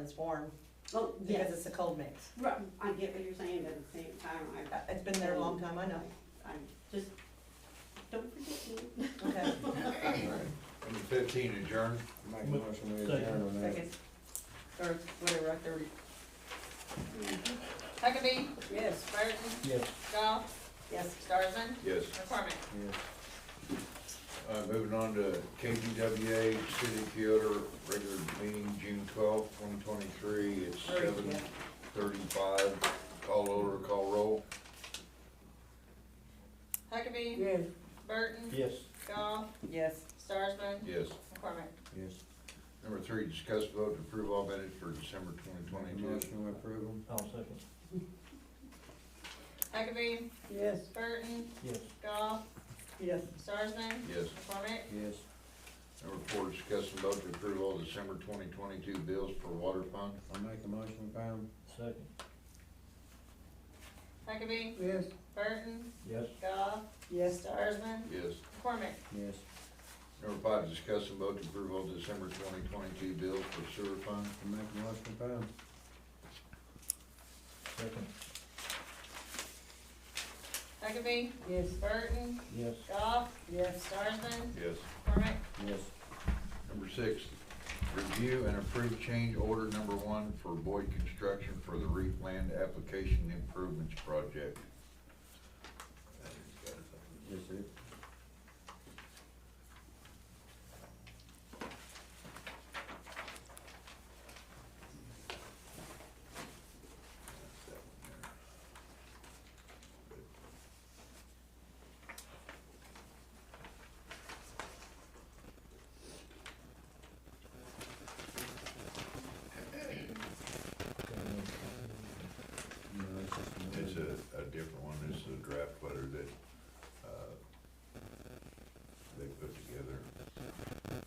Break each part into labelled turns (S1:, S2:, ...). S1: it's warm,
S2: Oh,
S1: because
S2: yes,
S1: it's a cold mix.
S2: right, I get what you're saying, but at the same time,
S1: Uh, It's been there a long time, I know,
S2: I, I'm just, don't forget me.
S1: okay.
S3: Number fifteen adjourned.
S4: Make a motion we adjourn on that.
S1: Second, or whatever, I thirty.
S5: Huckabee,
S1: Yes.
S5: Burton,
S4: Yes.
S5: Goff,
S1: Yes.
S5: Starsman,
S3: Yes.
S5: McCormick.
S4: Yes.
S3: Uh, moving on to KGWA City of Kyoto regular meeting, June twelfth, twenty twenty-three, it's
S1: Thirty,
S3: seven
S1: yeah.
S3: thirty-five. Call order, call roll.
S5: Huckabee,
S1: Yes.
S5: Burton,
S4: Yes.
S5: Goff,
S1: Yes.
S5: Starsman,
S3: Yes.
S5: McCormick.
S4: Yes.
S3: Number three, discuss vote to approve all minutes for December twenty
S4: Make a
S3: twenty-two.
S4: motion we approve them.
S6: I'll Oh, second.
S5: Huckabee,
S1: Yes.
S5: Burton,
S6: Yes.
S5: Goff,
S1: Yes.
S5: Starsman,
S3: Yes.
S5: McCormick.
S4: Yes.
S3: Number four, discuss and vote to approve all December twenty twenty-two bills for water fund.
S4: I make a motion we pay them.
S6: Second.
S5: Huckabee,
S1: Yes.
S5: Burton,
S6: Yes.
S5: Goff,
S1: Yes.
S5: Starsman,
S3: Yes.
S5: McCormick.
S4: Yes.
S3: Number five, discuss and vote to approve all December twenty twenty-two bills for sewer fund.
S4: I make a motion we pay them.
S6: Second.
S5: Huckabee,
S1: Yes.
S5: Burton,
S6: Yes.
S5: Goff,
S1: Yes.
S5: Starsman,
S3: Yes.
S5: McCormick.
S4: Yes.
S3: Number six, review and approve change order number one for Boyd Construction for the Reef Land Application Improvements Project.
S4: Yes, it. No, it's just. another-
S3: It's a, a different one, this is a draft letter that, uh, they put together.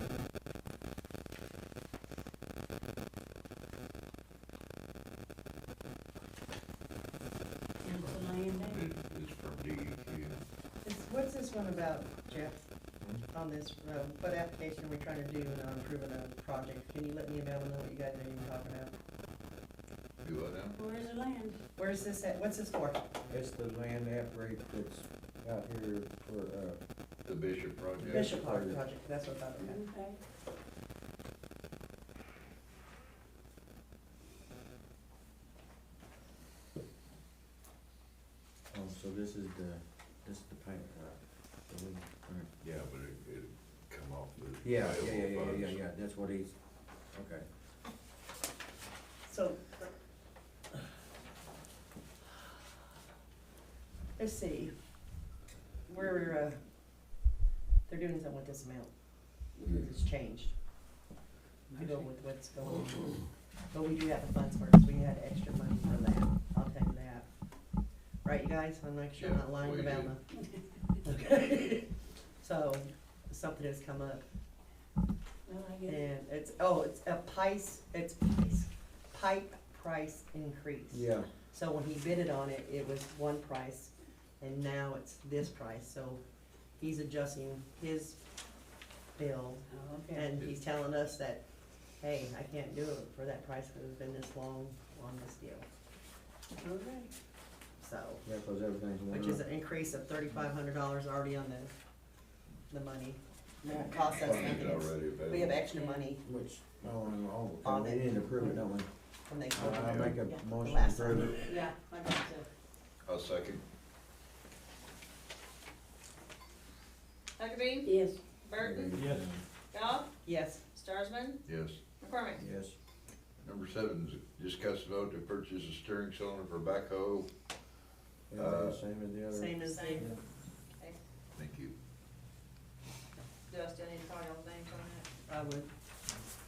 S2: Council Land Bank.
S3: It- It's from E DEQ.
S1: It's- What's this one about, Jeff, on this, uh, what application are we trying to do and I'm approving a project? Can you let me know and know what you guys are even talking about?
S3: Do I know?
S2: Where is the land?
S1: Where's this at, what's this for?
S4: It's the land app rate that's out here for, uh,
S3: The Bishop Project?
S1: Bishop Park project, that's what I thought, okay.
S2: Okay.
S4: oh, so this is the, this is the paint, uh, the weed. Alright.
S3: Yeah, but it, it come off the.
S4: Yeah, yeah, yeah, yeah,
S3: available
S4: yeah,
S3: funds.
S4: yeah, that's what he's, okay.
S1: So. Let's see. We're, uh, they're doing something with this amount. It's changed. To go with what's going on. But we do have the funds first. We had extra money for that. I'll take that. Right, you guys? I'm not sure I'm not
S3: Yeah,
S1: lying
S3: we
S1: about
S3: do.
S1: my. Okay. So, something has come up.
S2: Well, I get it.
S1: And it's, oh, it's a pice, it's pice, pipe price increase.
S4: Yeah,
S1: So when he bidded on it, it was one price, and now it's this price, so he's adjusting his bill,
S2: Oh, okay.
S1: and he's telling us that, hey, I can't do it for that price, because it's been this long on this deal,
S2: All right.
S1: so.
S4: yeah, cause everything's going
S1: Which is
S4: up.
S1: an increase of thirty-five hundred dollars already on the, the money, It costs us
S3: Funds
S1: nothing, It's-
S3: already
S1: we have
S3: available.
S1: extra money
S4: Which, oh, and all,
S1: On
S4: we
S1: it.
S4: didn't approve it, don't we?
S1: when
S4: Uh,
S1: they come.
S4: I I make
S1: Yeah,
S4: a motion to
S1: last
S4: approve
S1: time.
S4: it.
S2: Yeah, I got it.
S3: I'll second.
S5: Huckabee,
S2: Yes.
S5: Burton,
S6: Yes.
S5: Goff,
S1: Yes,
S5: Starsman,
S3: Yes.
S5: McCormick.
S4: Yes,
S3: Number seven, is discuss vote to purchase a steering cylinder for backhoe.
S4: everything the same as the other.
S1: Uh, same as,
S5: Same.
S4: Yeah.
S3: Thank you.
S5: Do I still need to call y'all's names on
S1: I would,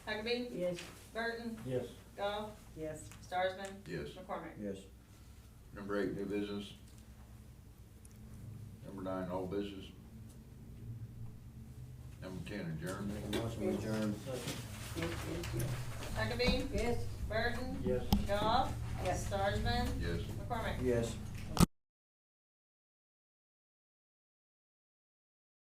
S5: that? Huckabee,
S2: Yes.
S5: Burton,
S6: Yes.
S5: Goff,
S1: yes,
S5: Starsman,
S3: Yes.
S5: McCormick.
S4: Yes,
S3: Number eight, new business. Number nine, old business. Number ten, adjournment.
S4: make a motion we adjourn.
S6: Second.
S2: Yes, yes,
S5: Huckabee,
S2: yes.
S5: Burton,
S6: Yes.
S5: Goff,
S1: Yes.
S5: Starsman,
S3: Yes.
S5: McCormick.
S4: Yes.